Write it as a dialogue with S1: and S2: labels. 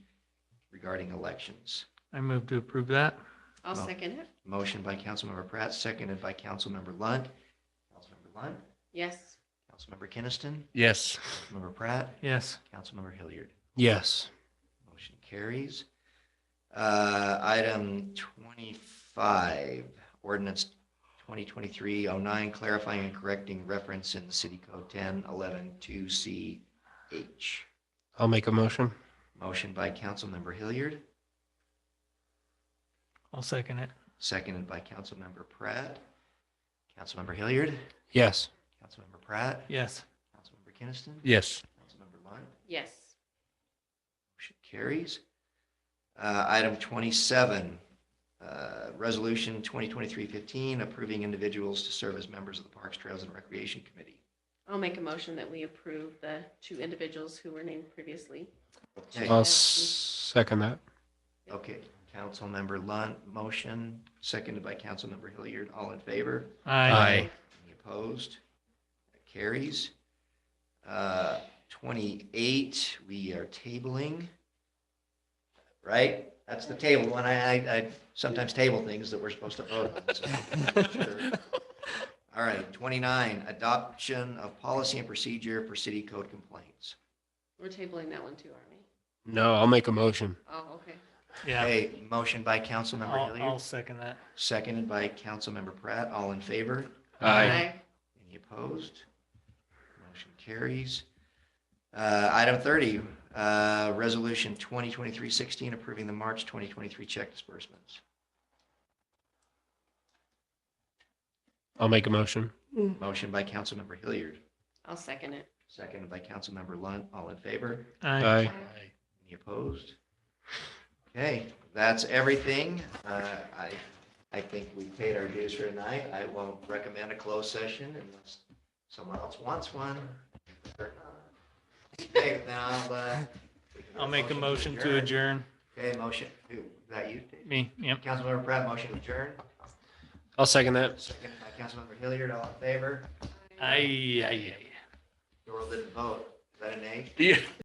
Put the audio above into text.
S1: regarding elections.
S2: I move to approve that.
S3: I'll
S1: Well-
S3: second it.
S1: Motion by Councilmember Pratt, seconded by Councilmember Lund. Councilmember Lund,
S3: Yes.
S1: Councilmember Kinnison,
S4: Yes.
S1: Councilmember Pratt,
S2: Yes.
S1: Councilmember Hilliard.
S4: Yes.
S1: Motion carries. Uh, Item 25, ordinance 2023-09, clarifying and correcting reference in the City Code 10-11-2CH.
S4: I'll make a motion.
S1: Motion by Councilmember Hilliard,
S2: I'll second it.
S1: seconded by Councilmember Pratt. Councilmember Hilliard,
S4: Yes.
S1: Councilmember Pratt,
S2: Yes.
S1: Councilmember Kinnison,
S4: Yes.
S1: Councilmember Lund.
S3: Yes.
S1: Motion carries. Uh, Item 27, uh, Resolution 2023-15, approving individuals to serve as members of the Parks, Trails, and Recreation Committee.
S3: I'll make a motion that we approve the two individuals who were named previously.
S1: Okay.
S4: I'll s- second that.
S1: Okay, Councilmember Lunt, motion, seconded by Councilmember Hilliard, all in favor?
S4: Aye.
S1: Any opposed? That Carries. Uh, 28, we are tabling, right? That's the table one. I, I I sometimes table things that we're supposed to vote on. so- Sure. All right, 29, adoption of policy and procedure for city code complaints.
S3: We're tabling that one too, aren't we?
S4: No, I'll make a motion.
S3: Oh, okay.
S2: Yeah.
S1: Okay, motion by Councilmember
S2: I'll, I'll
S1: Hilliard,
S2: second that.
S1: seconded by Councilmember Pratt, all in favor?
S4: Aye.
S1: Any opposed? Motion carries. Uh, Item 30, uh, Resolution 2023-16, approving the March 2023 check disbursements.
S4: I'll make a motion.
S1: Motion by Councilmember Hilliard,
S3: I'll second it.
S1: seconded by Councilmember Lunt. All in favor?
S2: Aye.
S4: Aye.
S1: Any opposed? Okay, that's everything. Uh, I, I think we paid our dues for tonight. I won't recommend a closed session unless someone else wants one. Okay, now, uh,
S2: I'll make a motion to adjourn.
S1: Okay, motion, who, is that you?
S2: Me, yep.
S1: Councilmember Pratt, motion to adjourn.
S4: I'll second that.
S1: Second by Councilmember Hilliard, all in favor?
S2: Aye, aye, aye.
S1: Doral didn't vote. Is that an A?
S4: Yeah.